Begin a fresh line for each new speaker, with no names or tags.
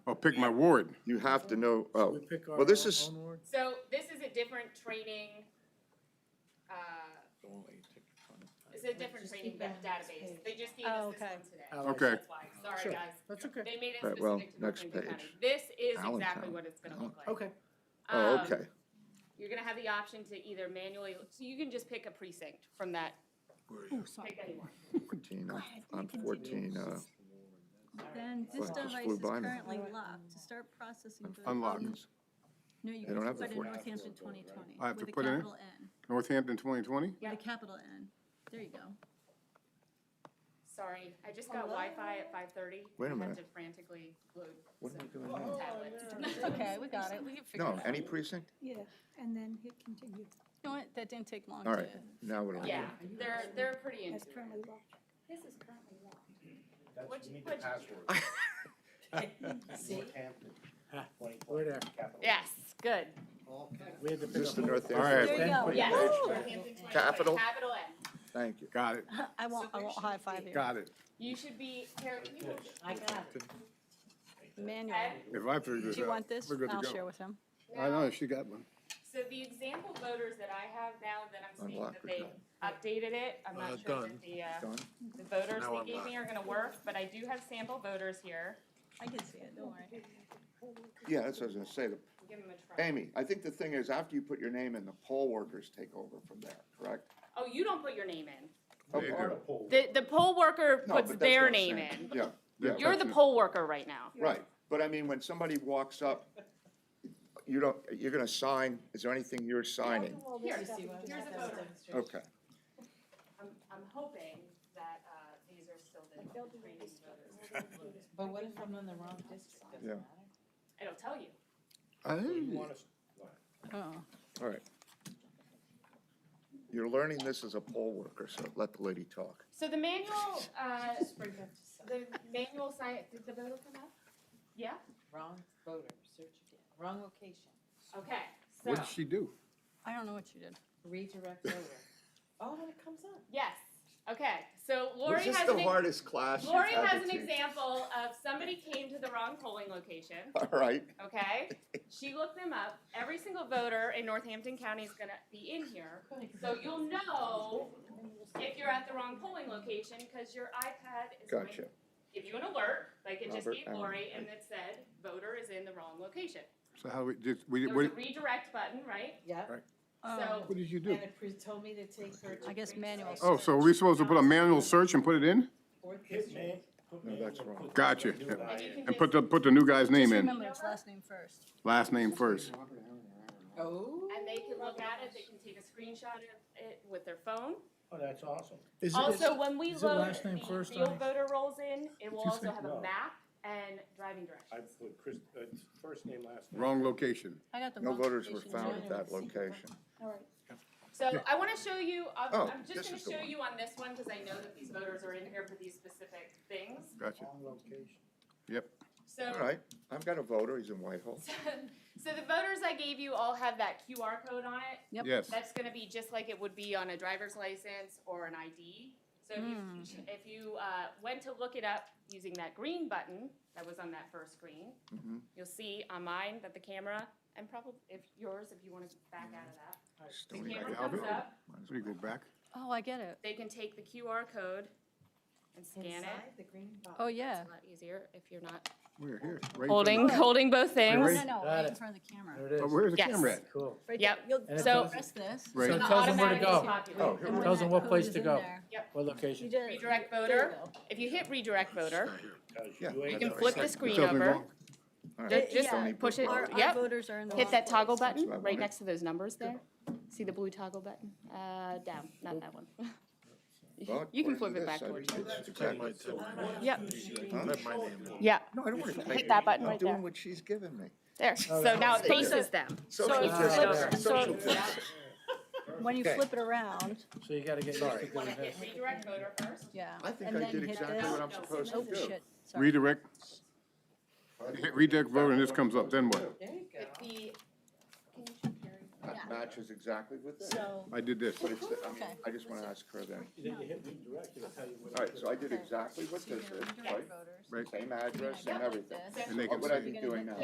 Or Oh, pick my ward.
You have to know, oh,
We pick our
well, this
own-
is,
own ward?
So this is a different training, uh, it's a different training da- database. They just gave
Oh,
us this
okay.
one today.
Oh,
Okay.
That's why, sorry,
Sure.
guys.
That's okay.
They made it
Right, well,
specific to
next
North Lincoln County.
page.
This is exactly
Allentown.
what it's gonna look like.
Okay.
oh,
Um,
okay.
You're gonna have the option to either manually, so you can just pick a precinct from that,
Oh, sorry.
pick anyone.
Fourteen, I'm-
ahead,
I'm
continue.
fourteen, uh,
Then this
Well, it just
device
flew
is
by me.
currently locked. To start processing. voting-
Unlock.
No, you
They don't
can
have
put
the
in
14.
Northampton twenty twenty.
I have to put it in?
With a capital N,
Northampton 2020?
with a capital N. There you go.
Sorry, I just got Wi-Fi at five thirty. I
Wait a
had
minute. Oh,
to frantically load
What am I doing
some tablets.
Okay, we got it. We can figure it
No,
out.
any precinct?
Yeah, and then hit continue.
You know what? That didn't take long
All right,
to.
now what do I do?
Yeah, they're, they're pretty
That's
into
currently
it.
locked.
This is currently locked. What'd you- what'd you-
We're there.
Yes, good.
We had to
Is this
pick
the
up.
North
All right.
Hampton?
There you go.
page?
Yes.
Capital?
Oh, Capital N.
Thank you.
Got it,
I won't, I won't high five here.
got it.
You should be, Kara, can you?
I got it.
Manual.
Ed,
If I figure this out.
Do you want this?
we're good to
I'll
go.
share with him.
I know, she got one.
So the example voters that I have now that I'm seeing
Unlock
that
the
they
gun.
updated it, I'm
Uh,
not sure
done.
that the, uh,
Done?
the voters
Now
they gave me are gonna work, but I do have sample voters here.
I can see it, don't worry.
Yeah, that's what I was gonna say. The-
Give them a try.
Amy, I think the thing is, after you put your name in, the poll workers take over from there, correct?
Oh, you don't put your name in.
Oh,
There you
pardon.
The, the poll worker puts
No, but that's what
their
I'm
name
saying.
in.
Yeah, yeah.
You're the poll worker right now.
Right, but I mean, when somebody walks up, you don't, you're gonna sign, is there anything you're signing?
Here, here's a voter.
Okay,
I'm, I'm hoping that, uh, these are still the the training voters.
But what if I'm in the wrong district? Doesn't
Yeah.
matter.
It'll tell you.
Hey.
Oh,
all right. You're learning this as a poll worker, so let the lady talk.
So the manual, uh,
Just bring them to some-
the manual science, did the voter come up? Yeah?
Wrong voter, search again, wrong location,
Okay, so,
What'd she do?
I don't know what you did.
redirect voter. Oh, when it comes up.
yes, okay, so Lori
Was this
has
the
an, ex-
hardest class you've
Lori
had
has
to
an
teach?
example of somebody came to the wrong polling location,
All right,
okay? She looked them up, every single voter in Northampton County is gonna be in here, so you'll know if you're at the wrong polling location, cause your iPad is going
gotcha.
give you an alert, like it just
Robert
gave
Allen.
Lori, and it said, voter is in the wrong location.
So how we, did, we,
There was
what,
a redirect button, right?
Yep,
Oh,
what did you do?
and it pre- told me to take her to.
I guess manual
Oh, so are we supposed to put a manual search and put it in?
Or
Hit man. put
No,
man
that's
and
wrong.
put
Gotcha.
the new guy
And you
in.
can
And
just-
put the, put the new guy's name
just
in,
remember it's last name first.
last name first.
Oh.
And they can look at it, they can take a screenshot of it with their phone.
Oh, that's awesome.
Is it-
Also, when we
is it
load
last
the
name first,
real
Arnie?
voter rolls in, it will
you
also
think?
have a
No.
map and driving
I
directions.
put Chris, uh, first name, last name.
Wrong location.
I got the
No
wrong.
voters were
location.
found at that location.
All right.
So I wanna show you, I'm,
Oh,
I'm
this
just gonna
is the
show
one.
you on this one, cause I know that these voters are in here for these specific things,
Gotcha.
Wrong location.
so.
All right, I've got a voter, he's in Whitehall.
So the voters I gave you all have that QR code on it,
Yep.
Yes.
That's gonna be just like it would be on a driver's license or an ID. So if
Hmm.
you, if you, uh, went to look it up using that green button that was on that first screen,
Mhm.
you'll see on mine that the camera, and probably if yours, if you wanna back out of that, the
Stony
camera
like
Brook.
comes
Albert?
up,
Might as
So you go back.
Oh, I get it.
they can take the QR code and scan it.
Inside the green box.
Oh
Oh,
yeah,
yeah.
It's a lot easier if you're not
We're here. right in front of-
holding, holding both
No,
things.
no, no,
Got
right in
it.
front of the camera.
There it
Oh,
is.
Where's the
Yes.
camera at?
Cool.
Right
Yep.
there. You'll
And it
So-
tells-
press this.
Right.
So
and
it
The
tells them where to
automatic
go.
is popular.
Oh,
when
here we
Tells
that
them what
code
place
is
to
in
go.
there-
What
You
location?
did it.
Redirect
There
voter,
you go.
if you hit redirect voter,
Because
Yeah.
you
You
you
ain't
can
never
flip
seen
the
it.
It
screen
tells me
over,
wrong.
All right.
Ju- just
Stony
push it-
Brook.
Our,
Yep.
our voters are in the.
hit that
wrong
toggle
place.
button,
That's what I
right
wanted.
next to those numbers there. See the blue toggle button, uh, down, not that one.
Well,
You can flip
according
it
to
back
this, I
towards
did
you.
this exactly.
Yep,
Huh?
yeah,
No, I don't want to.
hit that button
I'm
right there.
doing what she's giving me.
There, so now it faces them.
Social
it's-
distance,
so-
social distance.
When you
Okay.
flip it around,
So you gotta get used to
Sorry.
doing this.
redirect voter first.
yeah.
I think
and
I
then
did
hit
exactly
this.
what I'm
No,
supposed
Oh,
to do.
shit, sorry.
Redirect, hit redirect voter and this comes up, then what?
There you go.
Hit the,
Not match matches exactly with this.
So,
I did this.
But it's, the- I mean,
Okay.
I just wanna ask her then.
Then you hit redirect, it'll tell you what.
All right, so I did
Okay.
exactly what
so
this
your
is,
indirect
right?
voters.
Right.
Same address, same
Yeah.
everything.
And they
What
can
would I
say.
be doing now?